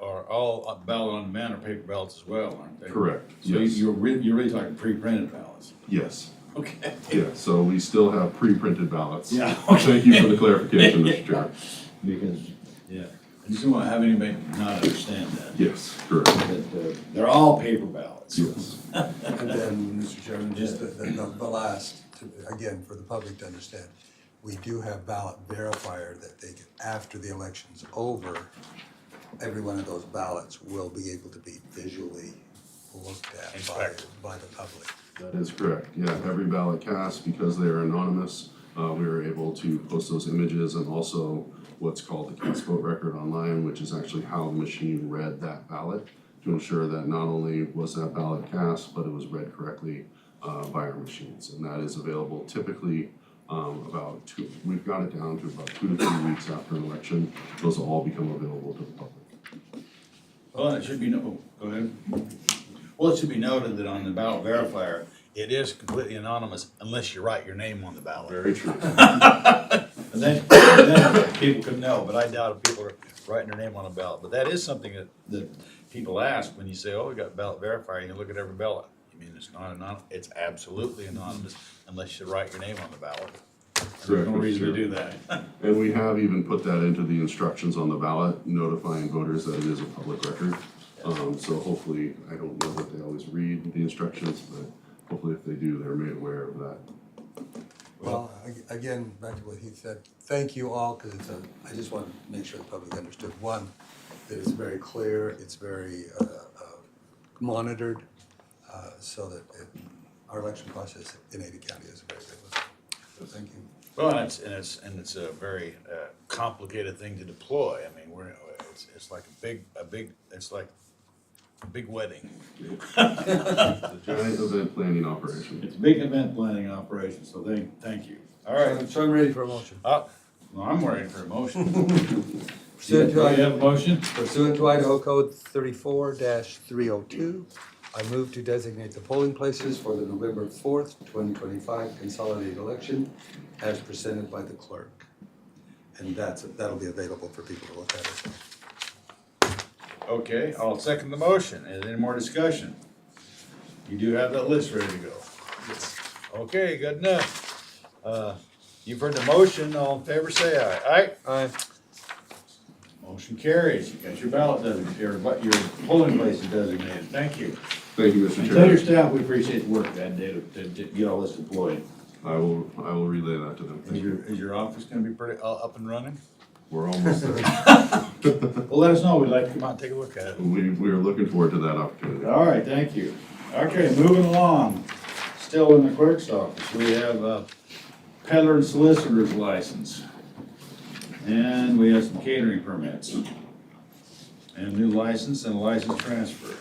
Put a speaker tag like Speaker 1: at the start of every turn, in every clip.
Speaker 1: are all ballot on demand or paper ballots as well, aren't they?
Speaker 2: Correct,
Speaker 1: So
Speaker 2: yes.
Speaker 1: you're really, you're really talking pre-printed ballots.
Speaker 2: Yes,
Speaker 1: Okay.
Speaker 2: yeah, so we still have pre-printed ballots.
Speaker 1: Yeah,
Speaker 2: Thank you for the clarification, Mr. Chair.
Speaker 3: Because
Speaker 1: Yeah, I just don't want to have anybody not understand that,
Speaker 2: Yes, correct,
Speaker 3: that, uh,
Speaker 1: they're all paper ballots.
Speaker 2: yes.
Speaker 4: And then, Mr. Chairman, just the, the, the last, to- again, for the public to understand, we do have ballot verifier that they, can- after the election's over, every one of those ballots will be able to be visually looked at by, by the public.
Speaker 2: That is correct, yeah, every ballot cast, because they are anonymous, uh, we are able to post those images and also what's called the cast vote record online, which is actually how the machine read that ballot to ensure that not only was that ballot cast, but it was read correctly, uh, by our machines, and that is available typically, um, about two, we've got it down to about two to three weeks after an election, those will all become available to the public.
Speaker 1: Well, it should be, no- oh, go ahead. Well, it should be noted that on the ballot verifier, it is completely anonymous unless you write your name on the ballot.
Speaker 2: Very true.
Speaker 1: And then, then people could know, but I doubt if people are writing their name on a ballot. But that is something that, that people ask when you say, oh, we got ballot verifier, and you look at every ballot. You mean it's not anonymous? It's absolutely anonymous unless you write your name on the ballot. And There's
Speaker 2: Correct,
Speaker 1: no
Speaker 2: Mr.
Speaker 1: reason to do
Speaker 2: Chairman.
Speaker 1: that.
Speaker 2: And we have even put that into the instructions on the ballot, notifying voters that it is a public record. Um, so hopefully, I don't know that they always read the instructions, but hopefully if they do, they're made aware of that.
Speaker 4: Well, ag- again, back to what he said, thank you all, because it's a, I just want to make sure the public understood, one, that it's very clear, it's very uh, uh, monitored, uh, so that it- our election process in Ada County is very good. So thank you.
Speaker 1: Well, and it's, and it's, and it's a very uh, complicated thing to deploy. I mean, we're, it's, it's like a big, a big, it's like a big wedding.
Speaker 2: The giant event planning operation.
Speaker 1: It's a big event planning operation, so thank, thank you. All right,
Speaker 4: So I'm ready for a motion.
Speaker 1: uh, well, I'm ready for a motion.
Speaker 4: Pursuant
Speaker 1: Do we
Speaker 4: to
Speaker 1: have a
Speaker 4: Idaho,
Speaker 1: motion?
Speaker 4: pursuant to Idaho Code thirty-four three oh two, I move to designate the polling places for the November fourth, twenty twenty-five consolidated election as presented by the clerk. And that's, that'll be available for people to look at it.
Speaker 1: Okay, I'll second the motion. Is there any more discussion? You do have that list ready to go? Okay, good enough. Uh, You've heard the motion. All in favor, say aye. Aye?
Speaker 4: Aye.
Speaker 1: Motion carries. You got your ballot designated, your, bu- your polling place is designated. Thank you.
Speaker 2: Thank you,
Speaker 1: And
Speaker 2: Mr.
Speaker 1: tell your
Speaker 2: Chair.
Speaker 1: staff we appreciate the work that day to, to- to get all this deployed.
Speaker 2: I will, I will relay that to them.
Speaker 1: Is
Speaker 2: Thank you.
Speaker 1: your, is your office gonna be pretty, uh, up and running?
Speaker 2: We're almost there.
Speaker 1: Well, let us know. We'd like to come out and take a look at it.
Speaker 2: We, we are looking forward to that opportunity.
Speaker 1: All right, thank you. Okay, moving along. Still in the clerk's office, we have a peddler and solicitor's license. And we have some catering permits. And a new license and a license transfer.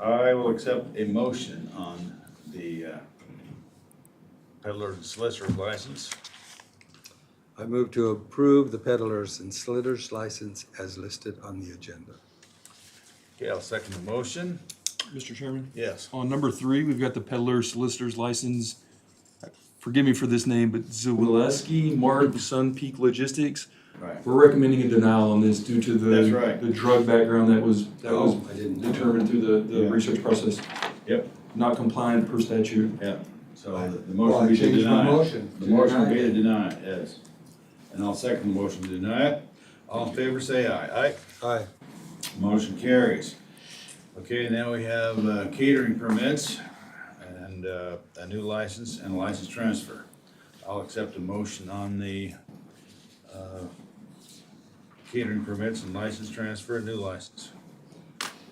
Speaker 1: I will accept a motion on the uh, peddler and solicitor's license.
Speaker 4: I move to approve the peddlers and sliders license as listed on the agenda.
Speaker 1: Okay, I'll second the motion.
Speaker 5: Mr. Chairman?
Speaker 1: Yes.
Speaker 5: On number three, we've got the peddler solicitor's license. Forgive me for this name, but Zawileski, Mark, Sun Peak Logistics.
Speaker 1: Right.
Speaker 5: We're recommending a denial on this due to the.
Speaker 1: That's right.
Speaker 5: The drug background that was, that was
Speaker 4: I didn't know.
Speaker 5: determined through the, the
Speaker 1: Yeah.
Speaker 5: research process.
Speaker 1: Yep.
Speaker 5: Not compliant per statute.
Speaker 1: Yeah, so the- the
Speaker 4: Well,
Speaker 1: motion
Speaker 4: I
Speaker 1: be to
Speaker 4: changed my
Speaker 1: deny. it.
Speaker 4: motion
Speaker 1: The
Speaker 4: to
Speaker 1: motion will
Speaker 4: deny
Speaker 1: be to
Speaker 4: it.
Speaker 1: deny, it, yes. And I'll second the motion to deny it. All in favor, say aye. Aye.
Speaker 4: Aye.
Speaker 1: Motion carries. Okay, now we have uh, catering permits and uh, a new license and a license transfer. I'll accept a motion on the uh, catering permits and license transfer, new license.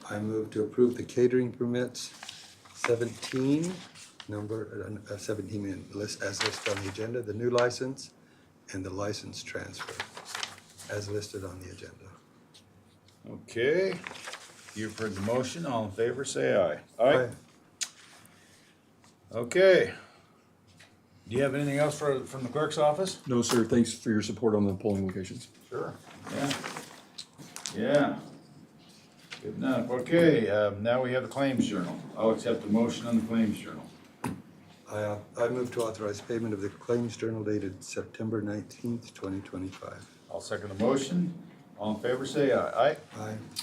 Speaker 4: I move to approve the catering permits seventeen, number uh, seventeen in list, as listed on the agenda, the new license and the license transfer as listed on the agenda.
Speaker 1: Okay, you've heard the motion. All in favor, say aye. Aye. Okay. Do you have anything else for, from the clerk's office?
Speaker 5: No, sir, thanks for your support on the polling locations.
Speaker 1: Sure. Yeah. Yeah. Good enough. Okay, um, now we have the claims journal. I'll accept the motion on the claims journal.
Speaker 4: I, uh, I move to authorize payment of the claims journal dated September nineteenth, twenty twenty-five.
Speaker 1: I'll second the motion. All in favor, say aye. Aye.
Speaker 4: Aye.